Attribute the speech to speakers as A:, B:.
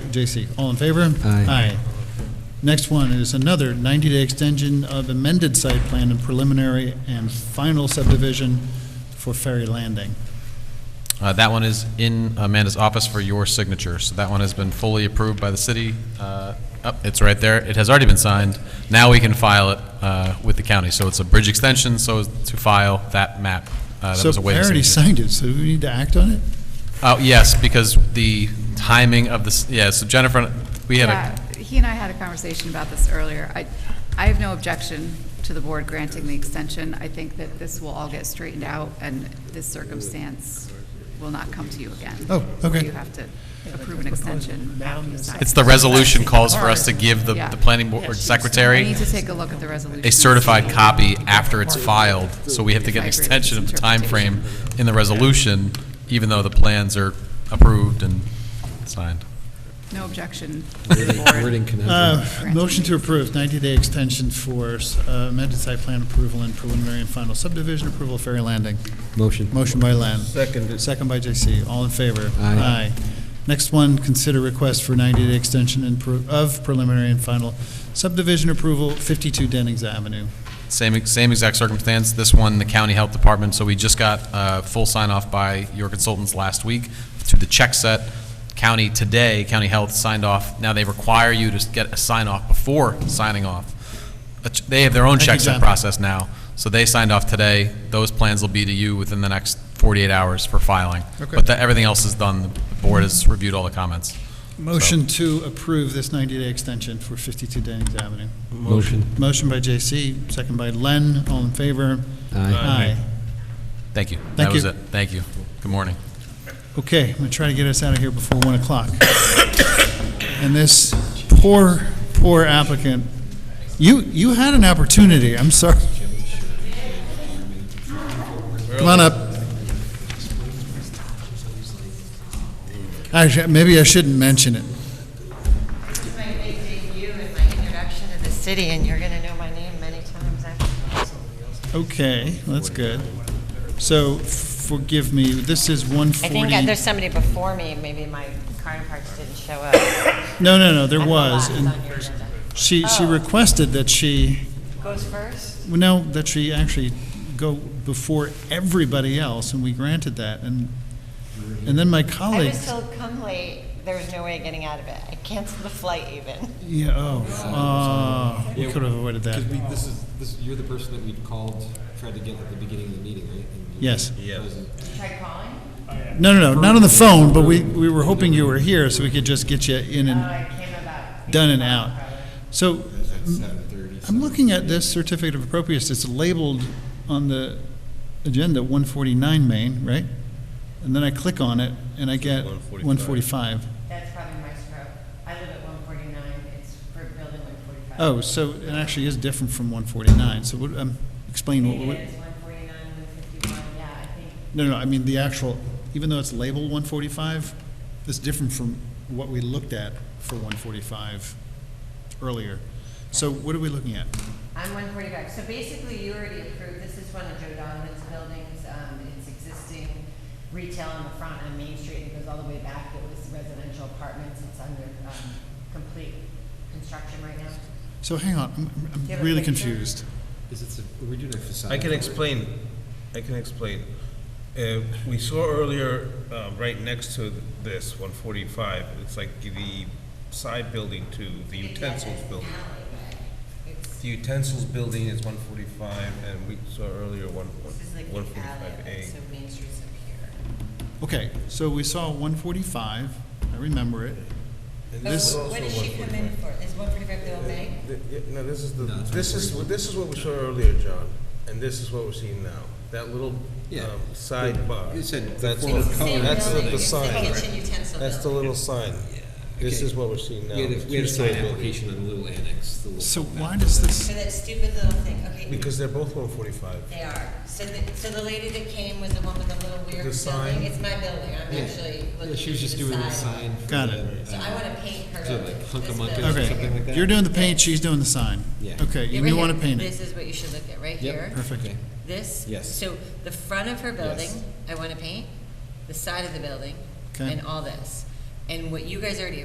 A: JC, all in favor?
B: Aye.
A: Next one is another 90-day extension of amended site plan and preliminary and final subdivision for Ferry Landing.
C: Uh, That one is in Amanda's office for your signature, so that one has been fully approved by the city. Uh, oh, It's right there, it has already been signed. Now we can file it uh, with the county, so it's a bridge extension, so as to file that map uh, that was
A: So I
C: away. from
A: already signed it, so do we need to act on it?
C: Oh, yes, because the timing of this, yeah, so Jennifer, we had a,
D: Yeah, He and I had a conversation about this earlier. I, I have no objection to the board granting the extension. I think that this will all get straightened out, and this circumstance will not come to you again.
A: Oh, okay.
D: Where you have to approve an extension after you sign.
C: it's the resolution calls for us to give the, the planning board
D: I
C: secretary
D: need to take a look at the resolution.
C: a certified copy after it's filed, so we have to get an extension of the time frame in the resolution, even though the plans are approved and signed.
D: No objection. to the
B: Wording
D: board.
B: wording conundrum.
A: Uh, Motion to approve 90-day extension for uh, amended site plan approval and preliminary and final subdivision approval of Ferry Landing.
B: Motion.
A: Motion by Len.
E: Seconded.
A: Second by JC. All in favor?
B: Aye.
A: Next one, consider request for 90-day extension and pro- of preliminary and final subdivision approval, 52 Dennings Avenue.
C: Same, same exact circumstance, this one, the county health department, so we just got uh, full sign-off by your consultants last week to the check set. County today, county health signed off, now they require you to get a sign-off before signing off. A ch- They have their own
A: Thank you,
C: check set
A: John.
C: process now, so they signed off today, those plans will be to you within the next 48 hours for filing.
A: Okay.
C: But the- everything else is done, the board has reviewed all the comments.
A: Motion to approve this 90-day extension for 52 Dennings Avenue.
B: Motion.
A: Motion by JC, second by Len. All in favor?
B: Aye.
C: Thank you.
A: Thank
C: That was
A: you.
C: it, thank you. Good morning.
A: Okay, I'm going to try to get us out of here before 1 o'clock. And this poor, poor applicant, you, you had an opportunity, I'm sorry. Come on up. Actually, maybe I shouldn't mention it.
F: my big debut and my introduction to the city, and you're going to know my name many times after.
A: Okay, that's good. So forgive me, this is
F: I think
A: 140.
F: uh, there's somebody before me, maybe my car parts didn't show up. I
A: No, no, no, there
F: thought
A: was.
F: last
A: and
F: on your agenda.
A: She, she
F: Oh.
A: requested that she
F: Goes first?
A: Well, no, that she actually go before everybody else, and we granted that, and, and then my
F: I
A: colleague,
F: was told come late, there was no way of getting out of it. I canceled the flight even.
A: yeah, oh, oh, we could have avoided that.
G: Because we, this is, this, you're the person that we called, tried to get at the beginning of the meeting, right? And you-
A: Yes.
G: Wasn't-
F: Tried calling?
A: No, no, no, not on the phone, but we, we were hoping you were here, so we could just get you in
F: Oh,
A: and
F: I came about.
A: done and out. So,
G: Seven thirty.
A: I'm looking at this certificate of appropriateness, it's labeled on the agenda, 149 Main, right? And then I click on it, and I get 145.
F: That's probably my stroke. I live at 149, it's for building 145.
A: Oh, so it actually is different from 149, so what, um, explain what- what,
F: It is 149, 151, yeah, I think.
A: no, no, I mean, the actual, even though it's labeled 145, it's different from what we looked at for 145 earlier. So what are we looking at?
F: I'm one forty-five, so basically you already approved, this is one of Joe Donovan's buildings, um, it's existing retail on the front on Main Street, it goes all the way back, it was residential apartments, it's under, um, complete construction right now.
A: So hang on, I'm- I'm-
F: you
A: I'm
F: have a
A: really
F: picture?
A: confused.
G: Is it, a- we're doing a facade.
E: I can
G: cover.
E: explain, I can explain. Uh, We saw earlier, uh, right next to this, 145, it's like the side building to the utensils building. The utensils building is 145, and we saw earlier one
F: This is like the alley,
E: 145A.
F: so Main Street's up here.
A: Okay, so we saw 145, I remember it.
E: And
A: This-
E: is
F: What
E: also
F: did she come in
E: 145.
F: for, is one forty-five the old bank?
H: Th- yeah, No, this is the, this is, what- this is what we saw earlier, John, and this is what we're seeing now. That little
G: Yeah.
H: um, sidebar.
G: You said the
H: That's
G: form of
H: the-
G: color.
H: That's the- the
F: It's the kitchen
H: sign.
F: utensil
H: That's the
F: building.
H: little sign. This
G: Okay.
H: is what we're seeing now.
G: We had a,
H: the
G: we had a
H: two-story
G: sign
H: building.
G: application on Little Annex, the little.
A: So why does this,
F: For that stupid little thing, okay.
H: Because they're both one forty-five.
F: They are. So the, so the lady that came was the one with the little weird
H: The sign?
F: building. It's my building. I'm
G: Yeah.
F: actually
G: Yeah,
F: looking
G: she was
F: to
G: just
F: the
G: doing a
F: side.
G: sign for
A: Got
G: the,
A: it.
F: So
G: uh,
F: I want to paint her.
G: So like
F: this
G: Hunkamunkas
F: building.
G: or
A: okay,
G: something like that?
A: you're doing the paint, she's doing the sign.
G: Yeah.
A: Okay,
F: Yeah,
A: and
F: right
A: you
F: here.
A: want to paint it.
F: This is what you should look at, right
G: Yep.
F: here.
A: Perfect.
G: Okay.
F: This.
G: Yes.
F: So the front of her building, I want to paint, the side of the building,
A: Okay.
F: and all this. And what you guys already